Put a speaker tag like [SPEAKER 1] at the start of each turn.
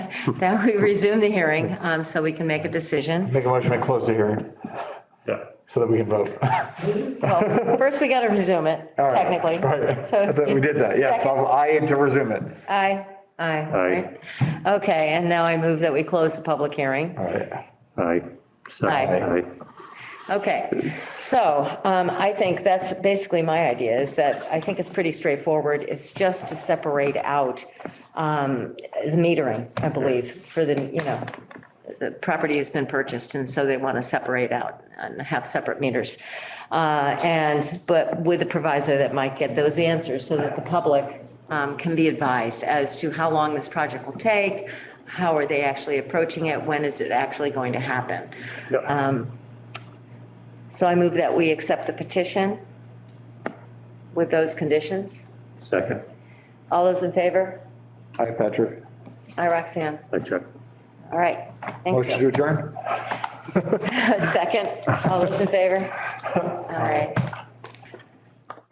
[SPEAKER 1] that we resume the hearing, um, so we can make a decision.
[SPEAKER 2] Make a motion to close the hearing
[SPEAKER 3] Yeah.
[SPEAKER 2] so that we can vote.
[SPEAKER 1] Well, First, we gotta resume it,
[SPEAKER 2] All right.
[SPEAKER 1] technically.
[SPEAKER 2] Right.
[SPEAKER 1] So-
[SPEAKER 2] I thought We did that, yes.
[SPEAKER 1] Second.
[SPEAKER 2] I'll- I to resume it.
[SPEAKER 1] Aye, aye.
[SPEAKER 3] Aye.
[SPEAKER 1] right. Okay, and now I move that we close the public hearing.
[SPEAKER 2] All right.
[SPEAKER 3] Aye. Second,
[SPEAKER 1] Aye.
[SPEAKER 3] aye.
[SPEAKER 1] Okay, so um, I think that's basically my idea is that I think it's pretty straightforward. It's just to separate out um, the metering, I believe, for the, you know, the property has been purchased and so they want to separate out and have separate meters. Uh, And, but with the proviso that might get those answers so that the public um, can be advised as to how long this project will take, how are they actually approaching it, when is it actually going to happen? Um,
[SPEAKER 3] Yeah.
[SPEAKER 1] So I move that we accept the petition with those conditions.
[SPEAKER 3] Second,
[SPEAKER 1] All those in favor?
[SPEAKER 2] Hi, Patrick.
[SPEAKER 1] Aye, Roxanne.
[SPEAKER 3] I check.
[SPEAKER 1] All right. Thank
[SPEAKER 2] Motion to
[SPEAKER 1] you.
[SPEAKER 2] adjourn?
[SPEAKER 1] Second. All those in favor? All right.